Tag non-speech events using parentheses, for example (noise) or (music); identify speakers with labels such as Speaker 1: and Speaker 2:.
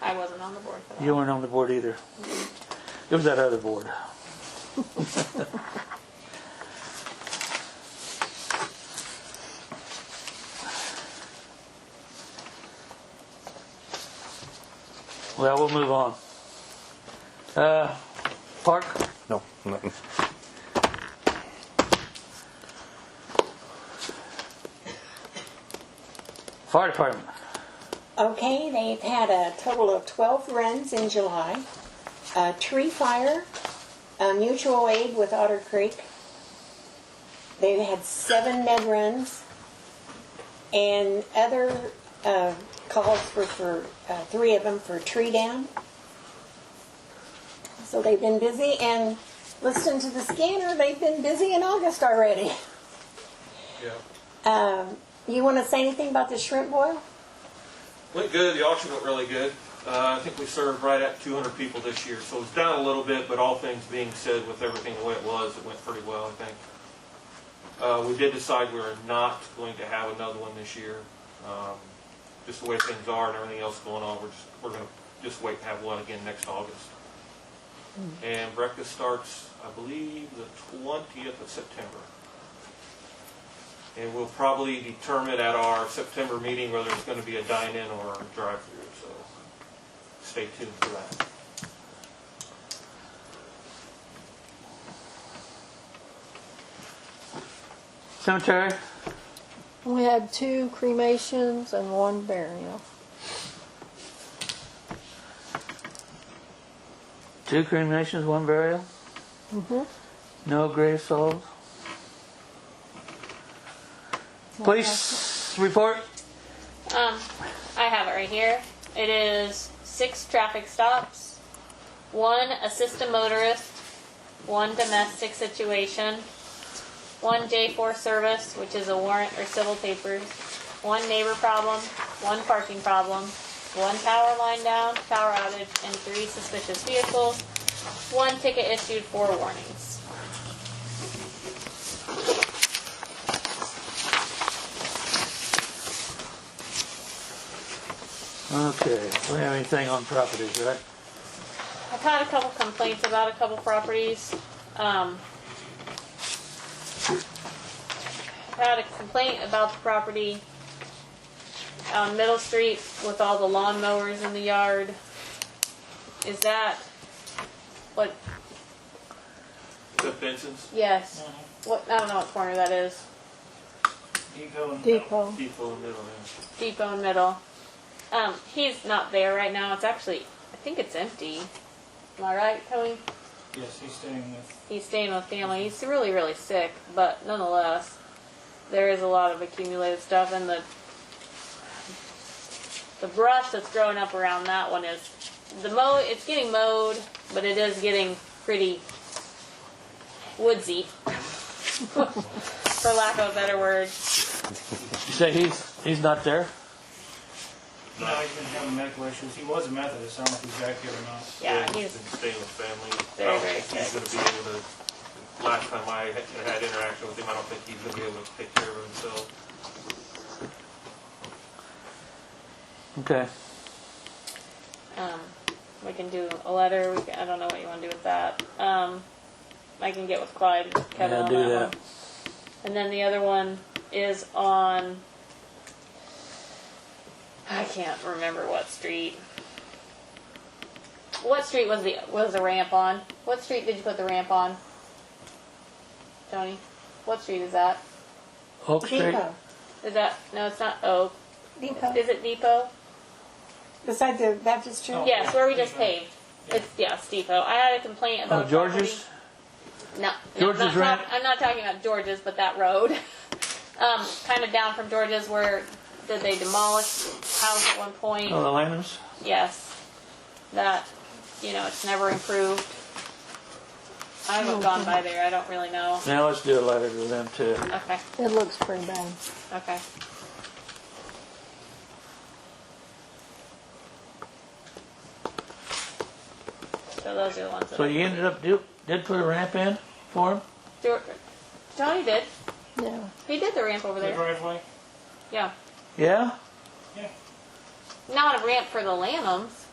Speaker 1: I wasn't on the board for that.
Speaker 2: You weren't on the board either. It was that other board. Well, we'll move on. Uh, Park,
Speaker 3: No, nothing.
Speaker 2: Fire Department.
Speaker 4: Okay, they've had a total of 12 runs in July. A tree fire, a mutual aid with Otter Creek. They've had seven med runs. And other uh, calls were for, uh, three of them for tree down. So they've been busy and listening to the scanner, they've been busy in August already.
Speaker 5: Yeah.
Speaker 4: Um, You want to say anything about the shrimp boil?
Speaker 5: Went good. The auction went really good. Uh, I think we served right at 200 people this year, so it's down a little bit, but all things being said, with everything the way it was, it went pretty well, I think. Uh, we did decide we were not going to have another one this year. Um, just the way things are and everything else going on, we're just, we're going to just wait and have one again next August. And breakfast starts, I believe, the 20th of September. And we'll probably determine at our September meeting whether it's going to be a dine-in or a drive-through, so stay tuned for that.
Speaker 2: Cemetery,
Speaker 6: We had two cremations and one burial.
Speaker 2: two cremations, one burial,
Speaker 6: Mm-hmm.
Speaker 2: no grave sold. Police report.
Speaker 1: Um, I have it right here. It is six traffic stops, one assist a motorist, one domestic situation, one J4 service, which is a warrant or civil papers, one neighbor problem, one parking problem, one power line down, power outage, and three suspicious vehicles, one ticket issued, four warnings.
Speaker 2: Okay, we don't have anything on properties, right?
Speaker 1: I've had a couple complaints about a couple properties. Um, I've had a complaint about the property on Middle Street with all the lawnmowers in the yard. Is that what?
Speaker 5: Is that Benson's?
Speaker 1: Yes. What? I don't know what corner that is.
Speaker 6: Depot.
Speaker 5: People in the middle, yeah.
Speaker 1: Depot and Middle. Um, he's not there right now. It's actually, I think it's empty. Am I right, Tony?
Speaker 7: Yes, he's staying with.
Speaker 1: he's staying with family. He's really, really sick, but nonetheless, there is a lot of accumulated stuff, and the the brush that's growing up around that one is the mow. It's getting mowed, but it is getting pretty woodsy, (laughs) for lack of a better word.
Speaker 2: You say he's, he's not there?
Speaker 7: No, he's been having medical issues. He was a Methodist. I don't know if he's back here or not.
Speaker 1: Yeah,
Speaker 5: He's
Speaker 1: he's
Speaker 5: been staying with family.
Speaker 1: Very,
Speaker 5: I don't
Speaker 1: very
Speaker 5: think he's going to be able to, last time I had had interaction with him, I don't think he's going to be able to take care of himself.
Speaker 2: Okay.
Speaker 1: Um, we can do a letter. We can, I don't know what you want to do with that. Um, I can get with Clyde and Kevin
Speaker 2: Yeah,
Speaker 1: on
Speaker 2: do
Speaker 1: that,
Speaker 2: that.
Speaker 1: one. And then the other one is on. I can't remember what street. What street was the was the ramp on? What street did you put the ramp on, Tony? What street is that?
Speaker 2: Oak Street?
Speaker 4: Depot.
Speaker 1: Is that no? It's not Oak.
Speaker 4: Depot.
Speaker 1: Is it Depot?
Speaker 4: Beside the Baptist church?
Speaker 7: Oh.
Speaker 1: Yes, where we just
Speaker 7: Depot.
Speaker 1: paved. It's yeah, it's Depot. I had a complaint about
Speaker 2: Oh,
Speaker 1: a property-
Speaker 2: George's?
Speaker 1: No,
Speaker 2: George's
Speaker 1: no, not,
Speaker 2: Ramp.
Speaker 1: not- I'm not talking about George's, but that road, (laughs) um, kind of down from George's, where did they demolish house at one point?
Speaker 2: Oh, the Lamans?
Speaker 1: Yes, that you know it's never improved. I haven't gone by there. I don't really know.
Speaker 2: Now let's do a letter to them too.
Speaker 1: Okay,
Speaker 6: It looks pretty bad.
Speaker 1: okay. So those are the ones. That
Speaker 2: So
Speaker 1: I-
Speaker 2: you ended up, do- did put a ramp in for him?
Speaker 1: Geor- Johnny did.
Speaker 6: Yeah.
Speaker 1: He did the ramp over
Speaker 7: The
Speaker 1: there.
Speaker 7: driveway.
Speaker 1: Yeah.
Speaker 2: Yeah?
Speaker 1: Not a ramp for the Lanhams.